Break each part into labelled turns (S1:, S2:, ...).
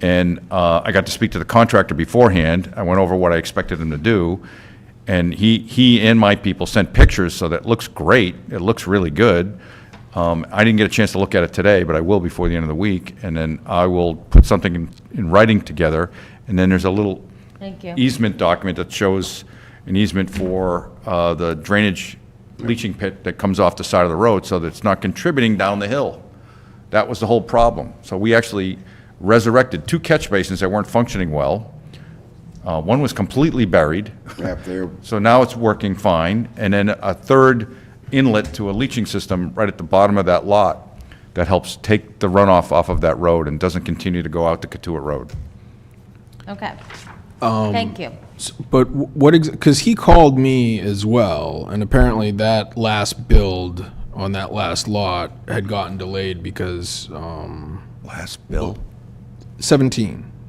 S1: And uh, I got to speak to the contractor beforehand. I went over what I expected him to do. And he, he and my people sent pictures, so that looks great. It looks really good. Um, I didn't get a chance to look at it today, but I will before the end of the week. And then I will put something in, in writing together. And then there's a little
S2: Thank you.
S1: easement document that shows an easement for uh, the drainage leaching pit that comes off the side of the road, so that it's not contributing down the hill. That was the whole problem. So we actually resurrected two catch basins that weren't functioning well. Uh, One was completely buried,
S3: Up there,
S1: so now it's working fine. And then a third inlet to a leaching system right at the bottom of that lot that helps take the runoff off of that road and doesn't continue to go out to Katuah Road.
S2: Okay.
S1: Um,
S2: Thank you.
S4: S- But wh- what, because he called me as well, and apparently that last build on that last lot had gotten delayed because, um,
S1: Last bill.
S4: 17,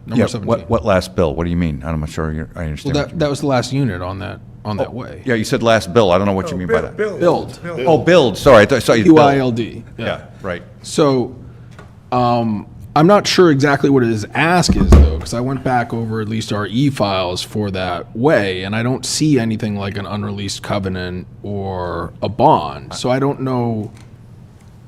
S1: Yeah,
S4: number 17.
S1: what, what last bill? What do you mean? I'm not sure you're- I
S4: Well,
S1: understand. what
S4: that,
S1: you-
S4: that was the last unit on that, on that way.
S1: Oh, Yeah, you said last Oh, bill. I don't know what you mean by that.
S4: Build,
S1: Oh, build, sorry, I thought I saw you. bill.
S4: BYLD.
S1: Yeah, right.
S4: So, um, I'm not sure exactly what his ask is though, because I went back over at least our e-files for that way, and I don't see anything like an unreleased covenant or a bond. So I don't know.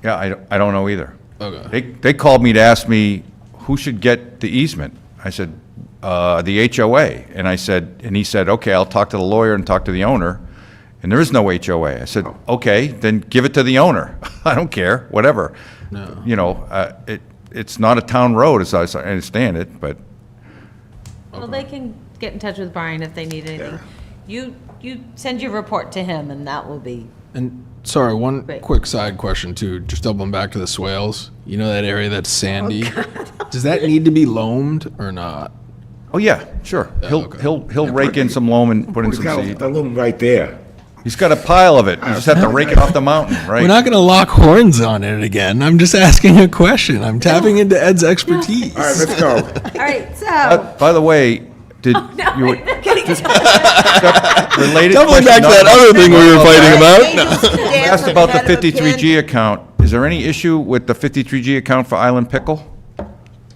S1: Yeah, I, don't- I don't know either.
S4: Okay.
S1: They, they called me to ask me who should get the easement. I said, uh, the HOA. And I said, and he said, okay, I'll talk to the lawyer and talk to the owner. And there is no HOA. I said, okay, then give it to the owner. I don't care, whatever. You know, uh, it, it's not a town road as I as I understand it, but
S2: Well, they can get in touch with Brian if they need anything. You, you send your report to him and that will be,
S4: And sorry, one
S2: Great.
S4: quick side question too. Just doubling back to the swales. You know that area that's sandy. Does that need to be loamed or not?
S1: Oh, yeah, sure. He'll,
S4: okay.
S1: he'll, he'll rake in some loam and put in
S3: he's
S1: some
S3: got
S1: seed.
S3: a loom right there.
S1: He's got a pile of it. You just have to rake it off the mountain,
S4: We're
S1: right?
S4: not going to lock horns on it again. I'm just asking a question. I'm tapping into Ed's expertise.
S3: All right, let's go.
S2: all right, so.
S1: By the way, did
S2: No,
S1: Uh, you,
S2: kidding.
S1: related
S4: Doubling
S1: question.
S4: back to that
S1: not-
S4: other thing we were fighting about.
S1: I Asked about the 53G account. Is there any issue with the 53G account for Island Pickle?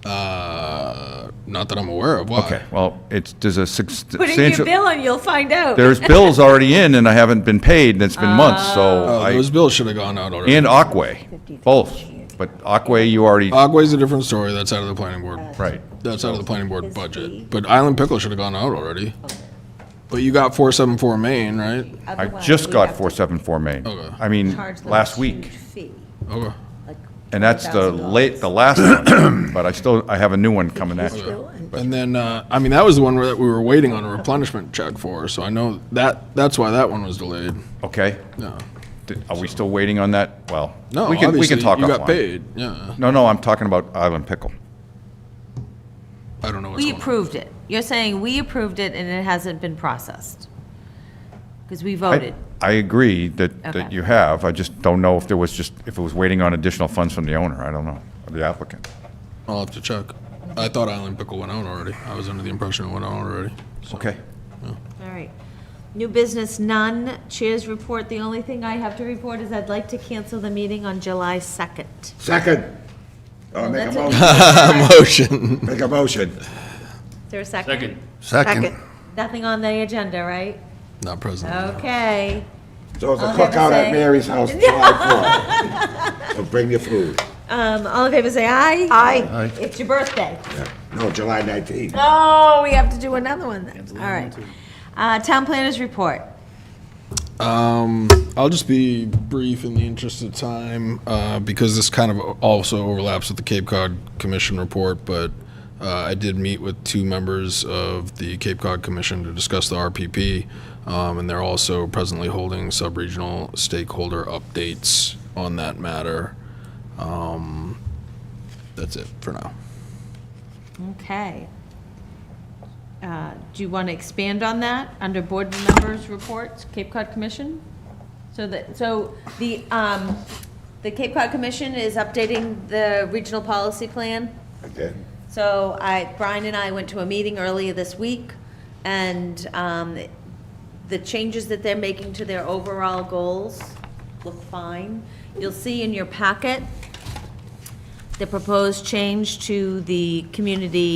S4: Uh, not that I'm aware of. Why?
S1: Okay, well, it's, there's a
S2: Put in your
S1: substantial,
S2: bill and you'll find out.
S1: there's bills already in and I haven't been paid and it's been months, so
S4: Oh,
S1: I,
S4: those bills should have gone out already.
S1: and Aquay, both. But Aquay, you already,
S4: Aqua's a different story. That's out of the planning board.
S1: right.
S4: That's out of the planning board budget. But Island Pickle should have gone out already. But you got 474 Main, right?
S1: I just got 474 Main.
S4: Okay.
S1: I mean, last week.
S4: Okay.
S1: And that's the late, the last one, but I still, I have a new one coming at you.
S4: And then, uh, I mean, that was the one where that we were waiting on a replenishment check for. So I know that that's why that one was delayed.
S1: Okay?
S4: No.
S1: Th- Are we still waiting on that? Well,
S4: No,
S1: we can, we
S4: obviously,
S1: can talk
S4: you got
S1: offline.
S4: paid. Yeah.
S1: No, no, I'm talking about Island Pickle.
S4: I don't know what's
S2: We
S4: going on.
S2: approved it. You're saying we approved it and it hasn't been processed. Because we voted.
S1: I agree that, that
S2: Okay.
S1: you have, I just don't know if there was just, if it was waiting on additional funds from the owner, I don't know, or the applicant.
S4: I'll have to check. I thought Island Pickle went out already. I was under the impression it went out already.
S1: Okay.
S2: All right. New business, none. Chairs report. The only thing I have to report is I'd like to cancel the meeting on July 2nd.
S3: Second. Oh, make a
S2: That's
S3: motion,
S1: Oh,
S4: Motion.
S3: make a motion.
S2: Is there a second? Second. Oh.
S5: Second.
S2: Nothing on the agenda, right?
S4: Not present.
S2: Okay.
S3: So it's a
S2: I'll have to
S3: cookout
S2: say-
S3: at Mary's house July 4th. So bring your food.
S2: Um, all in favor, say aye. Aye. It's your birthday.
S3: No, July 19th.
S2: Oh, we have to do another one then. All right. Uh, town planners report.
S4: Um, I'll just be brief in the interest of time, uh, because this kind of also overlaps with the Cape Cod Commission report, but, uh, I did meet with two members of the Cape Cod Commission to discuss the RPP, um, and they're also presently holding sub-regional stakeholder updates on that matter. Um, that's it for now.
S2: Okay. Uh, Do you want to expand on that, under board members' reports, Cape Cod Commission? So that, so the, um, the Cape Cod Commission is updating the regional policy plan?
S3: Okay.
S2: So I, Brian and I went to a meeting earlier this week, and um, the changes that they're making to their overall goals look fine. You'll see in your packet the proposed change to the community